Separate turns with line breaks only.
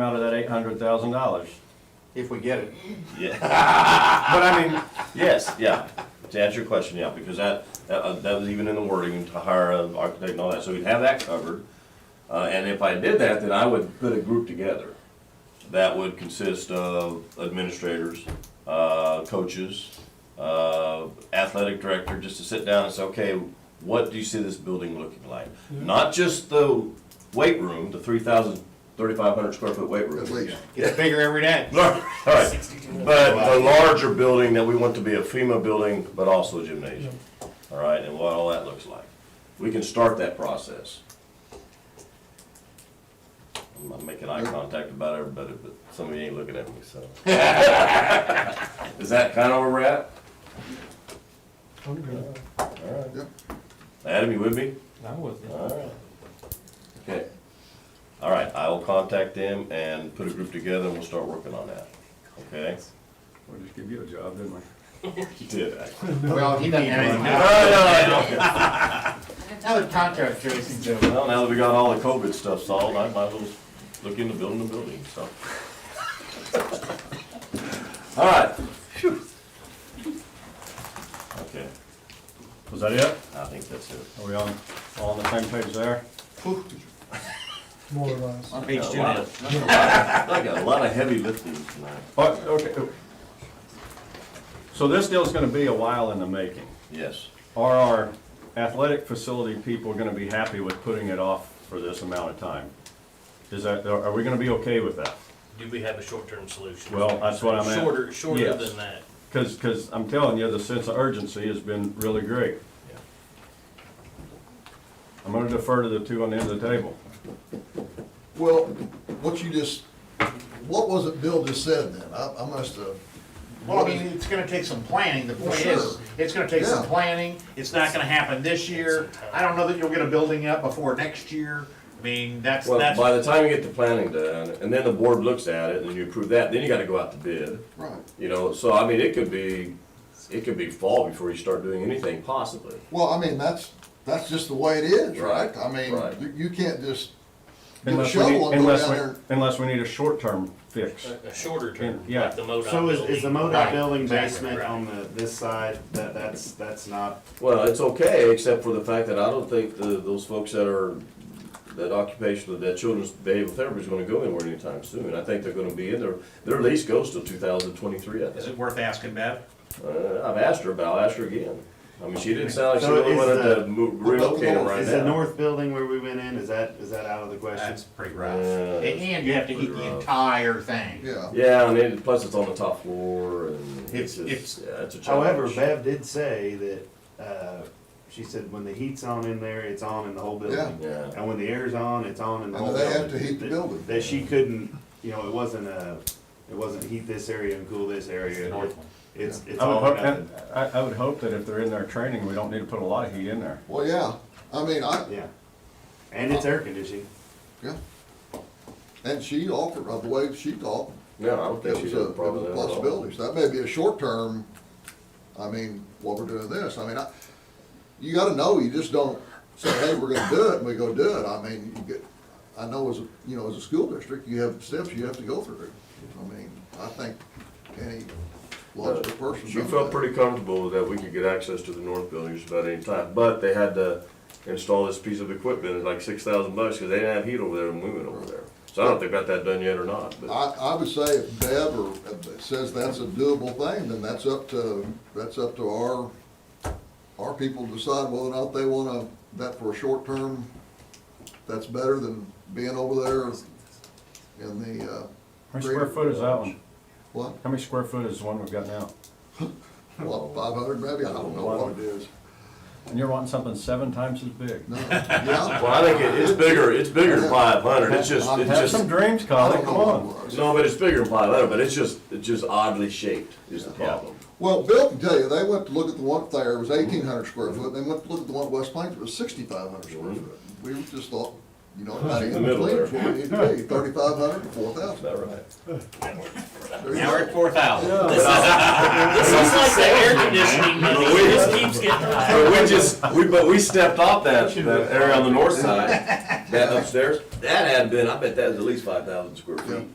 out of that eight hundred thousand dollars.
If we get it.
Yeah,
But I mean,
yes, yeah, to answer your question, yeah, because that, that, uh, that was even in the wording, to hire an architect and all that, so we'd have that covered. Uh, and if I did that, then I would put a group together that would consist of administrators, uh, coaches, uh, athletic director, just to sit down and say, okay, what do you see this building looking like? Not just the weight room, the three thousand, thirty-five hundred square foot weight room.
At least.
Gets bigger every day.
All right, but the larger building that we want to be a FEMA building, but also a gymnasium. All right, and what all that looks like. We can start that process. I'm not making eye contact about everybody, but some of you ain't looking at me, so. Is that kind of where we're at? All right.
Yep.
Adam, you with me?
I wasn't.
All right. Okay. All right, I will contact them and put a group together and we'll start working on that, okay?
We'll just give you a job, didn't we?
You did.
Well, he doesn't have anything.
Well,
Another contract, Jason, so.
now that we got all the COVID stuff solved, I might as well look into building a building, so. All right. Okay,
Was that it?
I think that's it.
Are we on, all on the same page there?
More or less.
I got a lot of- I got a lot of heavy lifting tonight.
Oh, okay. So this deal's gonna be a while in the making.
Yes,
Are our athletic facility people gonna be happy with putting it off for this amount of time? Is that, are are we gonna be okay with that?
Do we have a short-term solution?
Well, that's what I'm at.
Shorter, shorter
Yes.
than that.
Cause, cause I'm telling you, the sense of urgency has been really great.
Yeah.
I'm gonna defer to the two on the end of the table.
Well, what you just, what was it Bill just said then? I, I must have.
Well, I mean, it's gonna take some planning, the point is,
Sure.
it's gonna take some
Yeah.
planning, it's not gonna happen this year. I don't know that you'll get a building up before next year, I mean, that's,
well,
that's,
by the time you get the planning done, and then the board looks at it, and you approve that, then you gotta go out to bid.
Right.
You know, so I mean, it could be, it could be fall before you start doing anything possibly.
Well, I mean, that's, that's just the way it is, right?
Right,
I mean,
right.
you, you can't just get a
Unless we need,
shovel and go
unless
down
we,
there.
unless we need a short-term fix.
A shorter term,
Yeah.
like the MoDOT.
So is, is the MoDOT
Right,
building
exactly,
basement
right.
on the, this side, that, that's, that's not,
Well, it's okay, except for the fact that I don't think the, those folks that are, that occupational, that children's behavioral therapy is gonna go anywhere anytime soon. I think they're gonna be in there, their lease goes till two thousand twenty-three, I
is
think.
it worth asking, Bev?
Uh, I've asked her, but I'll ask her again. I mean, she didn't sound like she
So
really
is
wanted to
the-
mo- relocate them right
is the
now.
north building where we went in, is that, is that out of the question?
That's pretty rough.
Yeah.
And and you have to heat
pretty
the
rough.
entire thing.
Yeah,
Yeah, and it, plus it's on the top floor and it's
It's-
just,
it's-
yeah, it's a challenge.
However, Bev did say that, uh, she said when the heat's on in there, it's on in the whole building.
Yeah.
And when the air's on, it's on in the
And
whole
they
building.
have to heat the
That-
building.
That she couldn't, you know, it wasn't a, it wasn't heat this area and cool this area.
north one.
It's, it's
I would
all or
hope,
nothing.
and I, I would hope that if they're in their training, we don't need to put a lot of heat in there.
well, yeah, I mean, I,
Yeah. And it's air conditioning.
yeah. And she offered, uh, the way she talked,
No, I don't
it
think she's
was
got
a,
a
it
problem
was
with
a
that at all.
possibility. So that may be a short term, I mean, what we're doing this, I mean, I, you gotta know, you just don't say, hey, we're gonna do it, and we go do it. I mean, you get, I know as, a you know, as a school district, you have steps you have to go through. I mean, I think any logical person.
She
knows
felt
that.
pretty comfortable that we could get access to the north building just about any time, but they had to install this piece of equipment, it's like six thousand bucks, because they didn't have heat over there when we went over there. So I don't know if they got that done yet or not, but,
I, I would say if Bev or if it says that's a doable thing, then that's up to, that's up to our, our people to decide whether or not they wanna, that for a short term, that's better than being over there in the, uh,
How many square foot is that one?
what,
How many square foot is the one we've got now?
what, five hundred maybe? I don't know what it is.
And you're wanting something seven times as big.
No, yeah?
well, I think it, it's bigger, it's bigger than five hundred, it's just, it's
Have
just,
some dreams,
I
Colin,
don't know
come
what it
on.
was.
no, but it's bigger than five hundred, but it's just, it's just oddly shaped is the problem.
Well, Bill can tell you, they went to look at the one up there, it was eighteen hundred square foot, they went to look at the one at West Plains, it was sixty-five hundred square foot. We just thought, You know, about
In
even
the middle
between,
there.
is what we need to be, thirty-five hundred to four thousand.
About right.
Now we're at four thousand.
This is like the air conditioning money, it just keeps getting high.
But we just, we, but we stepped off that, that area on the north side, that upstairs, that had been, I bet that was at least five thousand square
Yeah.
feet.